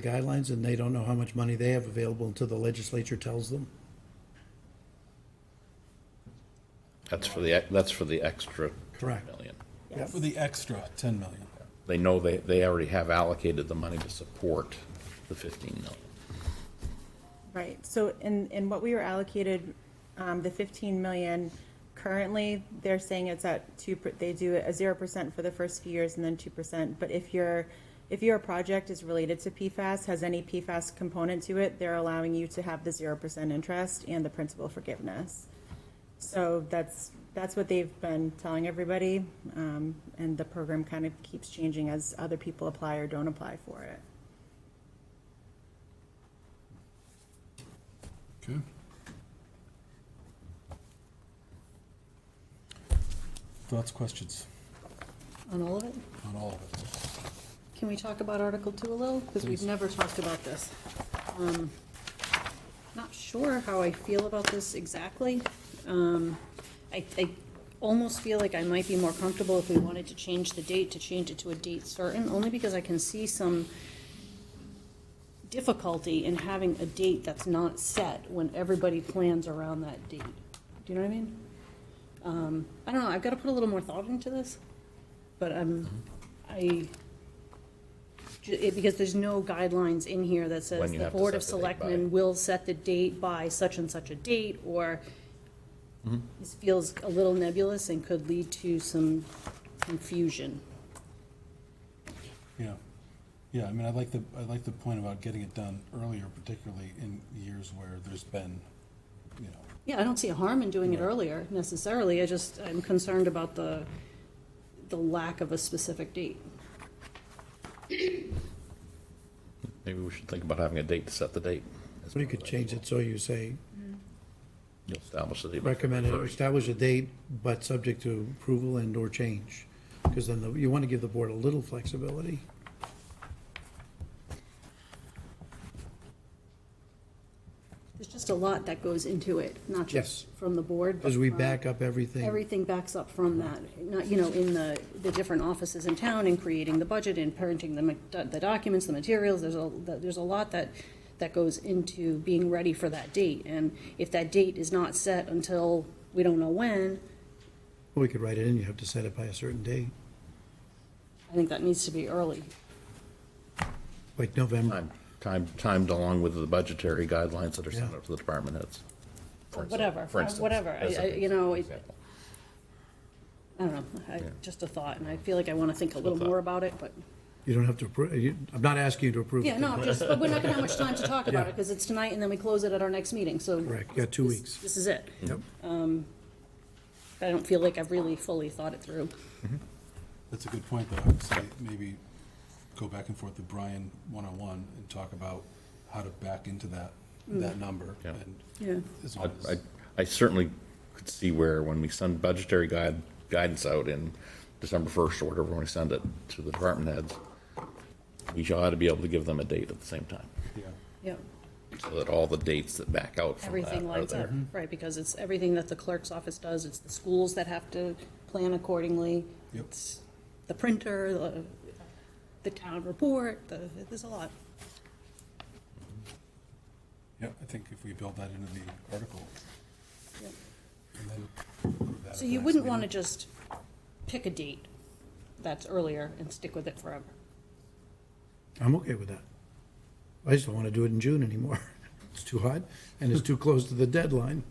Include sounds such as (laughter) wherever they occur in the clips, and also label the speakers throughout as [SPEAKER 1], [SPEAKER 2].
[SPEAKER 1] the guidelines and they don't know how much money they have available until the legislature tells them?
[SPEAKER 2] That's for the, that's for the extra
[SPEAKER 1] Correct.
[SPEAKER 2] million.
[SPEAKER 1] Yep.
[SPEAKER 3] For the extra 10 million.
[SPEAKER 2] They know they, they already have allocated the money to support the 15 million.
[SPEAKER 4] Right, so in, in what we were allocated, um, the fifteen million, currently, they're saying it's at two, per- they do a zero percent for the first few years and then two percent, but if your, if your project is related to PFAS, has any PFAS component to it, they're allowing you to have the zero percent interest and the principal forgiveness. So that's, that's what they've been telling everybody, um, and the program kind of keeps changing as other people apply or don't apply for it.
[SPEAKER 3] Okay. Thoughts, questions
[SPEAKER 5] On all of it?
[SPEAKER 3] on all of it?
[SPEAKER 5] Can we talk about Article Two a little? Because we've never talked about this. Um, Not sure how I feel about this exactly. Um, I, I almost feel like I might be more comfortable if we wanted to change the date, to change it to a date certain, only because I can see some difficulty in having a date that's not set when everybody plans around that date. Do you know what I mean? Um, I don't know, I've got to put a little more thought into this, but I'm,
[SPEAKER 2] Mm-hmm.
[SPEAKER 5] I, ju- it- because there's no guidelines in here that says
[SPEAKER 2] When you
[SPEAKER 5] the
[SPEAKER 2] have to
[SPEAKER 5] Board of
[SPEAKER 2] set the date by.
[SPEAKER 5] Selectmen will set the date by such and such a date, or
[SPEAKER 2] Mm-hmm.
[SPEAKER 5] this feels a little nebulous and could lead to some confusion.
[SPEAKER 3] Yeah. Yeah, I mean, I like the, I like the point about getting it done earlier, particularly in years where there's been, you know,
[SPEAKER 5] Yeah, I don't see a harm in doing it earlier necessarily, I just, I'm concerned about the, the lack of a specific date.
[SPEAKER 2] Maybe we should think about having a date to set the date.
[SPEAKER 1] So you could change it so you say
[SPEAKER 2] You'll Establish the date.
[SPEAKER 1] recommended, or
[SPEAKER 2] first.
[SPEAKER 1] establish a date, but subject to approval and or change. Because then the- you want to give the board a little flexibility.
[SPEAKER 5] There's just a lot that goes into it, not
[SPEAKER 1] Yes.
[SPEAKER 5] just from the board. but
[SPEAKER 1] Because we
[SPEAKER 5] from-
[SPEAKER 1] back up everything,
[SPEAKER 5] Everything backs up from that, not, you know, in the, the different offices in town and creating the budget and parenting the, ma- the documents, the materials, there's a, there's a lot that, that goes into being ready for that date. And if that date is not set until we don't know when,
[SPEAKER 1] we could write it in, you have to set it by a certain date,
[SPEAKER 5] I think that needs to be early.
[SPEAKER 1] like November.
[SPEAKER 2] Time- Time, timed along with the budgetary guidelines that are sent
[SPEAKER 1] Yeah.
[SPEAKER 2] out to the department heads. for
[SPEAKER 5] Or
[SPEAKER 2] instance-
[SPEAKER 5] whatever,
[SPEAKER 2] for
[SPEAKER 5] or
[SPEAKER 2] instance,
[SPEAKER 5] whatever, I-
[SPEAKER 2] as a-
[SPEAKER 5] I- you know, it-
[SPEAKER 2] example.
[SPEAKER 5] I don't know, I, just a thought, and I feel like I want to think a little
[SPEAKER 2] thought.
[SPEAKER 5] more about it,
[SPEAKER 1] (laughs)
[SPEAKER 5] but,
[SPEAKER 1] You don't have to, appro- you- I'm not asking you to approve.
[SPEAKER 5] yeah,
[SPEAKER 1] it.
[SPEAKER 5] no, I'm just, but we're not going to have much time to talk
[SPEAKER 1] (laughs)
[SPEAKER 5] about
[SPEAKER 1] Yeah.
[SPEAKER 5] it, because it's tonight, and then we close it at our next meeting, so.
[SPEAKER 1] Correct, yeah, two
[SPEAKER 5] this-
[SPEAKER 1] weeks.
[SPEAKER 5] This is it. Um,
[SPEAKER 1] Yep.
[SPEAKER 5] I don't feel like I've really fully thought it through.
[SPEAKER 3] That's a good point, though. I would say maybe go back and forth with Brian one-on-one and talk about how to back into that, that number.
[SPEAKER 2] Yeah.
[SPEAKER 3] and
[SPEAKER 5] Yeah.
[SPEAKER 3] as long
[SPEAKER 2] I-
[SPEAKER 3] as-
[SPEAKER 2] I- I certainly could see where when we send budgetary guide, guidance out in December 1st or whatever, when we send it to the department heads, we shall ought to be able to give them a date at the same time,
[SPEAKER 3] Yeah.
[SPEAKER 5] Yep.
[SPEAKER 2] so that all the dates that back out from that
[SPEAKER 5] Everything
[SPEAKER 2] are
[SPEAKER 5] lines
[SPEAKER 2] there.
[SPEAKER 5] up, right, because it's everything that the clerk's office does, it's the schools that have to plan accordingly.
[SPEAKER 3] Yep.
[SPEAKER 5] It's the printer, the, the town report, the, there's a lot.
[SPEAKER 3] Yeah, I think if we build that into the article.
[SPEAKER 5] Yep.
[SPEAKER 3] and then approve that
[SPEAKER 5] So
[SPEAKER 3] at
[SPEAKER 5] you
[SPEAKER 3] the
[SPEAKER 5] wouldn't
[SPEAKER 3] next
[SPEAKER 5] want to
[SPEAKER 3] meeting.
[SPEAKER 5] just pick a date that's earlier and stick with it forever.
[SPEAKER 1] I'm okay with that. I just don't want to do it in June anymore. (laughs) It's too hot and it's too close to the deadline.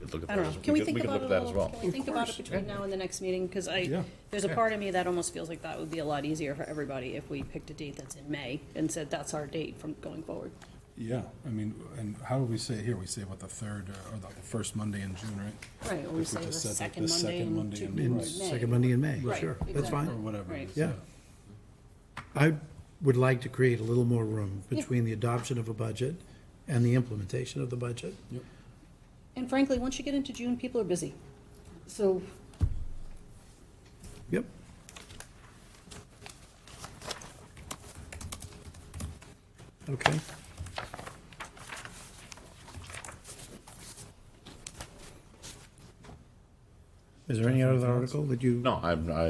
[SPEAKER 2] Could look at
[SPEAKER 5] I don't
[SPEAKER 2] that
[SPEAKER 5] know,
[SPEAKER 2] as-
[SPEAKER 5] can we
[SPEAKER 2] could-
[SPEAKER 5] think
[SPEAKER 2] could
[SPEAKER 5] about
[SPEAKER 2] look
[SPEAKER 5] it
[SPEAKER 2] at
[SPEAKER 5] a
[SPEAKER 2] that as
[SPEAKER 5] little,
[SPEAKER 2] well.
[SPEAKER 5] can we think about it between now and the next meeting? Because I, there's a part of me that almost feels like that would be a lot easier for everybody if we picked a date that's in May and said that's our date from going forward.
[SPEAKER 3] Yeah, I mean, and how do we say it here? We say what, the third, uh, or the the first Monday in June, right?
[SPEAKER 5] Right, or
[SPEAKER 3] If we
[SPEAKER 5] we say the
[SPEAKER 3] just said that the
[SPEAKER 5] second Monday
[SPEAKER 3] second
[SPEAKER 5] in
[SPEAKER 3] Monday
[SPEAKER 5] Ju-
[SPEAKER 3] in
[SPEAKER 5] in
[SPEAKER 1] In
[SPEAKER 3] Right.
[SPEAKER 5] May.
[SPEAKER 1] second Monday in May,
[SPEAKER 5] Right,
[SPEAKER 1] sure, that's
[SPEAKER 5] exactly.
[SPEAKER 3] Or
[SPEAKER 1] fine.
[SPEAKER 3] whatever. it
[SPEAKER 5] Right.
[SPEAKER 3] is,
[SPEAKER 1] Yeah. I would like to create a little more room
[SPEAKER 5] Yeah.
[SPEAKER 1] between the adoption of a budget and the implementation of the budget.
[SPEAKER 3] Yep.
[SPEAKER 5] And frankly, once you get into June, people are busy. So
[SPEAKER 1] Yep. Okay. Is there any other article that you?
[SPEAKER 2] No, I'm, I